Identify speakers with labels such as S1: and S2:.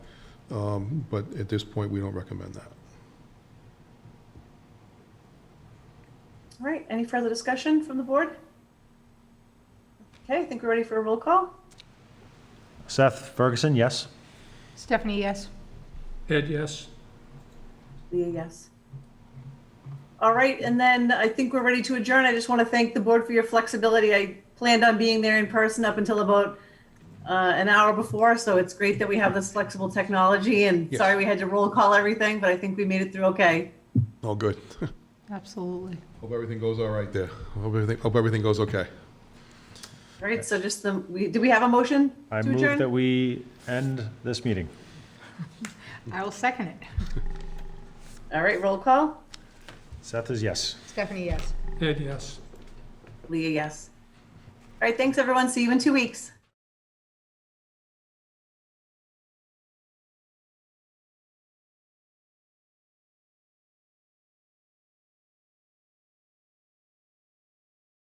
S1: Um, But at this point, we don't recommend that.
S2: All right, any further discussion from the board? Okay, I think we're ready for a roll call.
S3: Seth Ferguson, yes.
S4: Stephanie, yes.
S5: Ed, yes.
S2: Leah, yes. All right, and then I think we're ready to adjourn. I just want to thank the board for your flexibility. I planned on being there in person up until about uh, an hour before, so it's great that we have this flexible technology, and
S1: Yes.
S2: sorry we had to roll call everything, but I think we made it through okay.
S1: All good.
S4: Absolutely.
S1: Hope everything goes all right there. Hope everything, hope everything goes okay.
S2: All right, so just the, we, do we have a motion
S3: I
S2: to
S3: move that
S2: adjourn?
S3: we end this meeting.
S4: I will second it.
S2: All right, roll call.
S3: Seth is yes.
S4: Stephanie, yes.
S5: Ed, yes.
S2: Leah, yes. All right, thanks, everyone. See you in two weeks.